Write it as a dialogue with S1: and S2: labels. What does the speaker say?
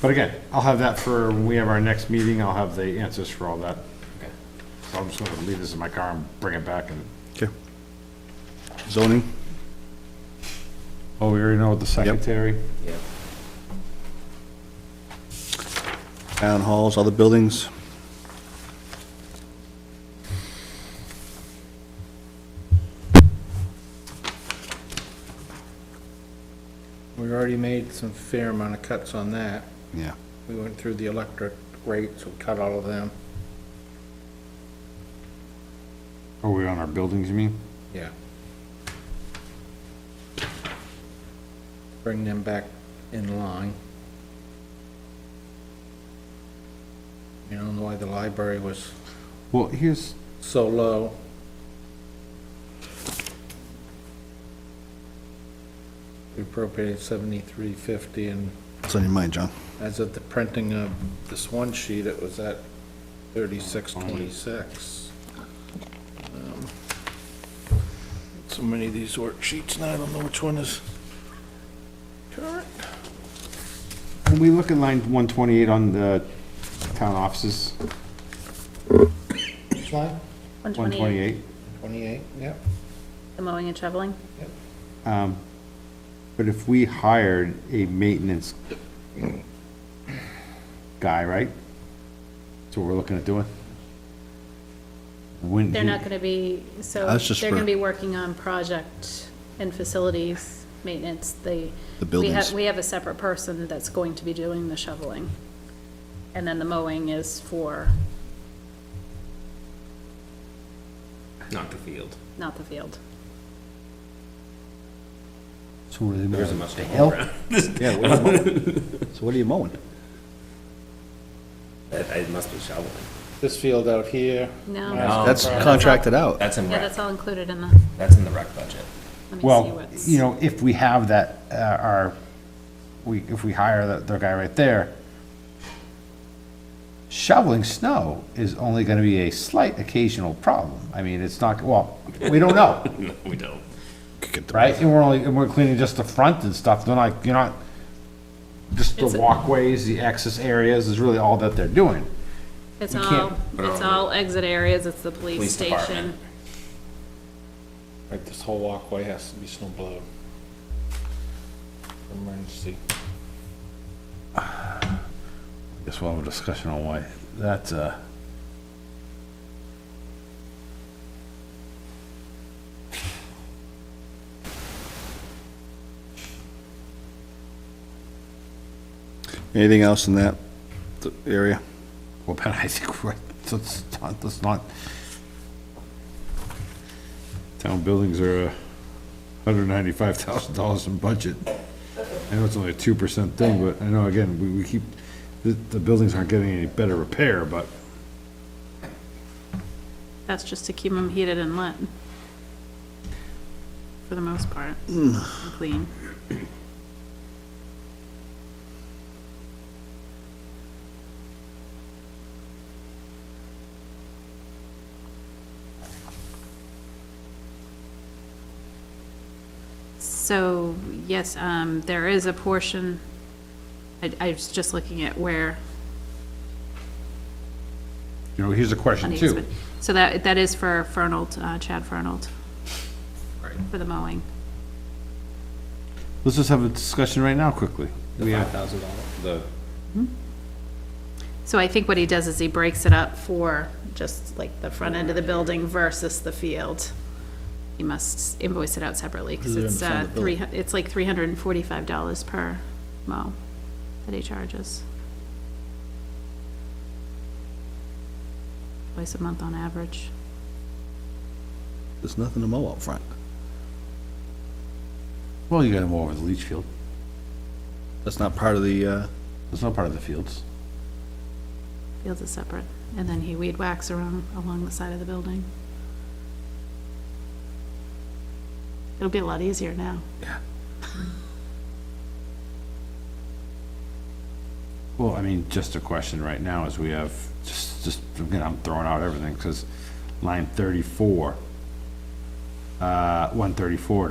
S1: But again, I'll have that for, when we have our next meeting, I'll have the answers for all that.
S2: Okay.
S1: So I'm just gonna leave this in my car and bring it back and,
S3: Okay. Zoning?
S1: oh, we already know the secretary.
S2: Yeah.
S3: town halls, other buildings.
S4: We already made some fair amount of cuts on that.
S3: Yeah.
S4: We went through the electric rates, we cut all of them.
S1: Are we Oh, on our buildings, you mean?
S4: Yeah. Bring them back in line. You know, why the library was
S1: Well, here's,
S4: so low. We appropriated seventy-three fifty and
S3: What's on your mind, John?
S4: As of the printing of this one sheet, it was at thirty-six twenty-six. Um, So many of these worksheets, now I don't know which one is current.
S1: when we look at line one twenty-eight on the town offices,
S4: Which line?
S1: one twenty-eight,
S4: Twenty-eight, yep.
S5: The mowing and shoveling?
S1: but if we hired a maintenance guy, right? That's what we're looking at doing? Wouldn't
S5: They're
S1: he-
S5: not gonna be, so
S3: That's just
S5: they're
S3: for-
S5: gonna be working on project and facilities maintenance, they.
S3: The
S5: we
S3: buildings.
S5: have We have a separate person that's going to be doing the shoveling. And then the mowing is for,
S2: Not the field.
S5: not the field.
S3: So what are you
S2: There
S3: mowing?
S2: isn't much to
S3: hell?
S2: mow around.
S3: Yeah, what are you mowing? So what are you mowing?
S2: It it must be shoveling.
S4: This field out here,
S5: No,
S2: No.
S3: That's contracted out.
S2: That's in
S5: yeah,
S2: rec,
S5: that's all included in the,
S2: that's in the rec budget.
S5: let me see
S1: Well,
S5: what's.
S1: you know, if we have that, uh, our, we, if we hire that, the guy right there, shoveling snow is only gonna be a slight occasional problem. I mean, it's not, well, we don't know,
S2: No, we don't.
S1: right? And we're only, and we're cleaning just the front and stuff, they're not, you're not, just the
S5: It's a-
S1: walkways, the access areas is really all that they're doing.
S5: It's
S1: you
S5: all,
S1: can't
S2: put it
S5: it's
S2: on
S5: all exit areas, it's the
S2: Police
S5: police
S2: department.
S5: station.
S4: like this whole walkway has to be snow blown. Emergency.
S1: Guess we'll have a discussion on why, that's, uh,
S3: Anything else in that th- area?
S1: well, Ben, I think, we're- let's, not- let's not. Town buildings are a hundred ninety-five thousand dollars in budget. I know it's only a two percent thing, but I know, again, we, we keep, the, the buildings aren't getting any better repair, but
S5: That's just to keep them heated and lit. For the most part, and clean. So, yes, um, there is a portion, I, I was just looking at where
S1: You know, here's a
S5: on
S1: question
S5: the
S1: too.
S5: easement. So that, that is for Fernald, uh, Chad Fernald. For the mowing.
S1: Let's just have a discussion right now quickly.
S2: The five thousand dollars, the,
S5: So I think what he does is he breaks it up for just like the front end of the building versus the field. He must invoice it out separately
S3: Is
S5: because
S3: it in
S5: it's,
S3: the front
S5: uh,
S3: of the
S5: three, hu- it's like three hundred and forty-five dollars per mow that he charges. Twice a month on average.
S3: There's nothing to mow out front.
S1: Well, you gotta mow over the leach field.
S3: That's not part of the, uh,
S1: That's not part of the fields.
S5: Fields is separate. And then he weed whacks around along the side of the building. It'll be a lot easier now.
S1: Well, I mean, just a question right now is we have, just, just, again, I'm throwing out everything, because line thirty-four, uh, one thirty-four